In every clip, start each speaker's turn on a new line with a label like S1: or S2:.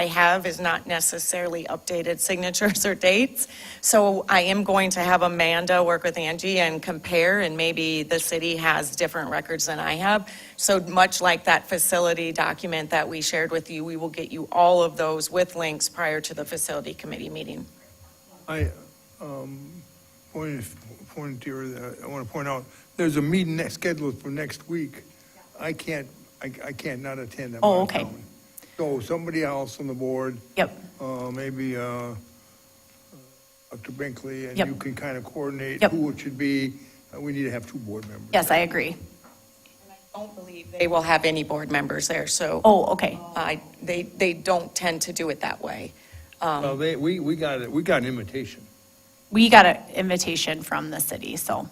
S1: I have is not necessarily updated signatures or dates. So I am going to have Amanda work with Angie and compare, and maybe the city has different records than I have. So much like that facility document that we shared with you, we will get you all of those with links prior to the facility committee meeting.
S2: I, um, point of, point here, that I want to point out, there's a meeting next, scheduled for next week. I can't, I, I can't not attend. I'm out
S1: Oh,
S2: of
S1: okay.
S2: town. So somebody else on the board,
S1: Yep.
S2: uh, maybe, uh, Dr. Binkley, and
S3: Yep.
S2: you can kind of coordinate
S3: Yep.
S2: who it should be. Uh, We need to have two board members.
S3: Yes, I agree.
S1: Don't believe they will have any board members there, so
S3: Oh, okay.
S1: I, they, they don't tend to do it that way. Um,
S2: Well, they, we, we got, it. we got an invitation.
S3: We got an invitation from the city, so.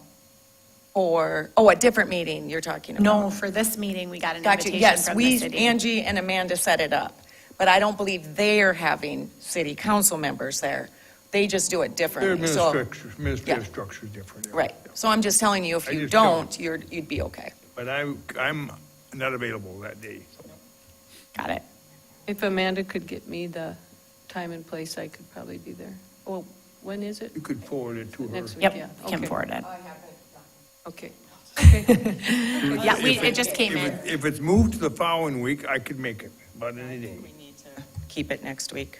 S1: Or, oh, a different meeting you're talking about?
S3: No, for this meeting, we got an
S1: Got you,
S3: invitation
S1: yes,
S3: from the
S1: we,
S3: city.
S1: Angie and Amanda set it up, but I don't believe they're having city council members there. They just do it
S2: Their
S1: differently, so,
S2: administrative, administrative
S1: Yeah.
S2: structure's different. yeah.
S1: right. So I'm just telling you, if
S2: I
S1: you
S2: just don't.
S1: don't, you're, you'd be okay.
S2: But I, I'm not available that day, so.
S3: Got it.
S4: If Amanda could get me the time and place, I could probably be there. Well, when is it?
S2: You could forward it to her.
S4: Next week, yeah.
S3: Yep, Kim
S4: okay,
S3: forwarded.
S4: Okay.
S3: Yeah, we, it just came
S2: If
S3: in.
S2: it- If it's moved to the following week, I could make it, about any day.
S1: Keep it next week,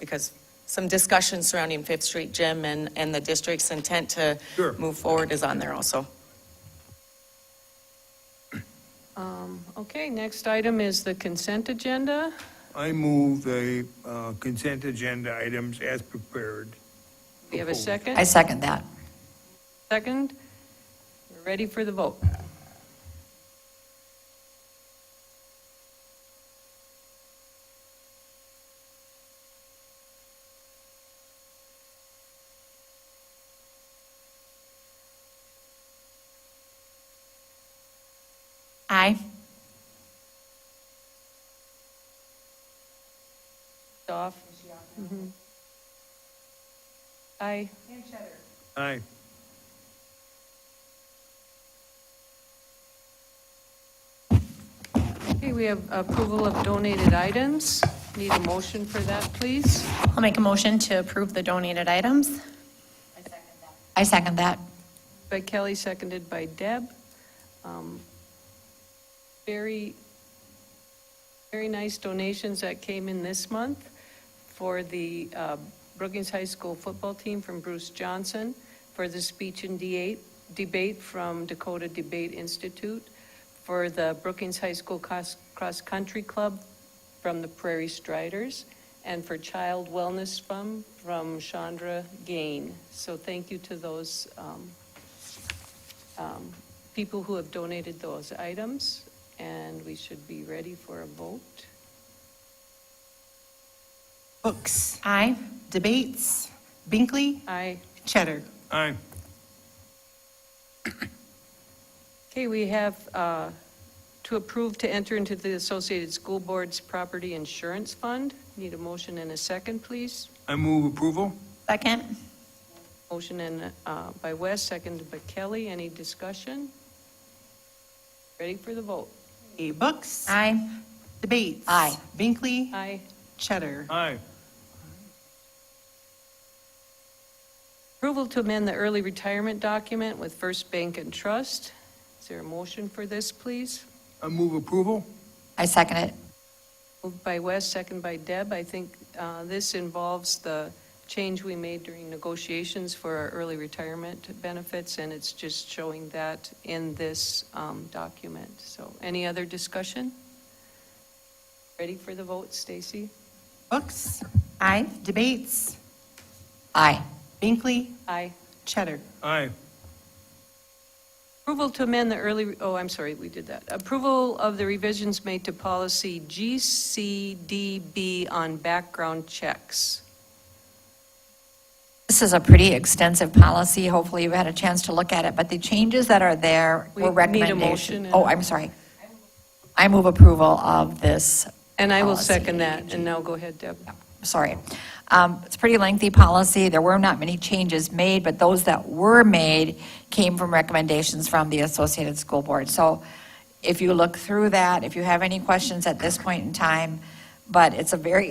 S1: because some discussion surrounding Fifth Street Gym and, and the district's intent to
S2: Sure.
S1: move forward is on there also.
S4: Um, Okay, next item is the consent agenda.
S2: I move the uh, consent agenda items as prepared.
S4: We have a
S2: Proposed.
S4: second?
S5: I second that.
S4: Second? We're ready for the vote.
S3: Aye.
S4: Off. Mhm. Aye.
S2: Aye.
S4: Okay, we have approval of donated items. Need a motion for that, please?
S3: I'll make a motion to approve the donated items.
S5: I second that.
S4: By Kelly, seconded by Deb. Um, Very, very nice donations that came in this month for the uh, Brookings High School football team from Bruce Johnson, for the speech and de- debate from Dakota Debate Institute, for the Brookings High School Cross- Cross Country Club from the Prairie Striders, and for Child Wellness Fund from Chandra Gain. So thank you to those um, um, people who have donated those items, and we should be ready for a vote.
S6: Books,
S3: Aye.
S6: debates, Binkley,
S4: Aye.
S6: Cheddar.
S2: Aye.
S4: Okay, we have uh, to approve to enter into the Associated School Boards Property Insurance Fund. Need a motion and a second, please.
S2: I move approval.
S3: Second.
S4: Motion and, uh, by West, second by Kelly. Any discussion? Ready for the vote?
S6: Okay, Books,
S3: Aye.
S6: debates.
S5: Aye.
S6: Binkley,
S4: Aye.
S6: Cheddar.
S2: Aye.
S4: Approval to amend the early retirement document with First Bank and Trust. Is there a motion for this, please?
S2: I move approval.
S5: I second it.
S4: Moved by West, second by Deb. I think uh, this involves the change we made during negotiations for our early retirement benefits, and it's just showing that in this um, document. So any other discussion? Ready for the vote, Stacy?
S6: Books,
S3: Aye.
S6: debates,
S5: Aye.
S6: Binkley,
S4: Aye.
S6: Cheddar.
S2: Aye.
S4: Approval to amend the early, oh, I'm sorry, we did that. Approval of the revisions made to policy GCDB on background checks.
S5: This is a pretty extensive policy. Hopefully you've had a chance to look at it, but the changes that are there
S4: We
S5: were
S4: need a
S5: recommendations.
S4: motion and-
S5: Oh, I'm sorry. I move approval of this.
S4: And I will
S5: policy.
S4: second that, and now go ahead, Deb.
S5: Sorry. Um, It's a pretty lengthy policy. There were not many changes made, but those that were made came from recommendations from the Associated School Board. So if you look through that, if you have any questions at this point in time, but it's a very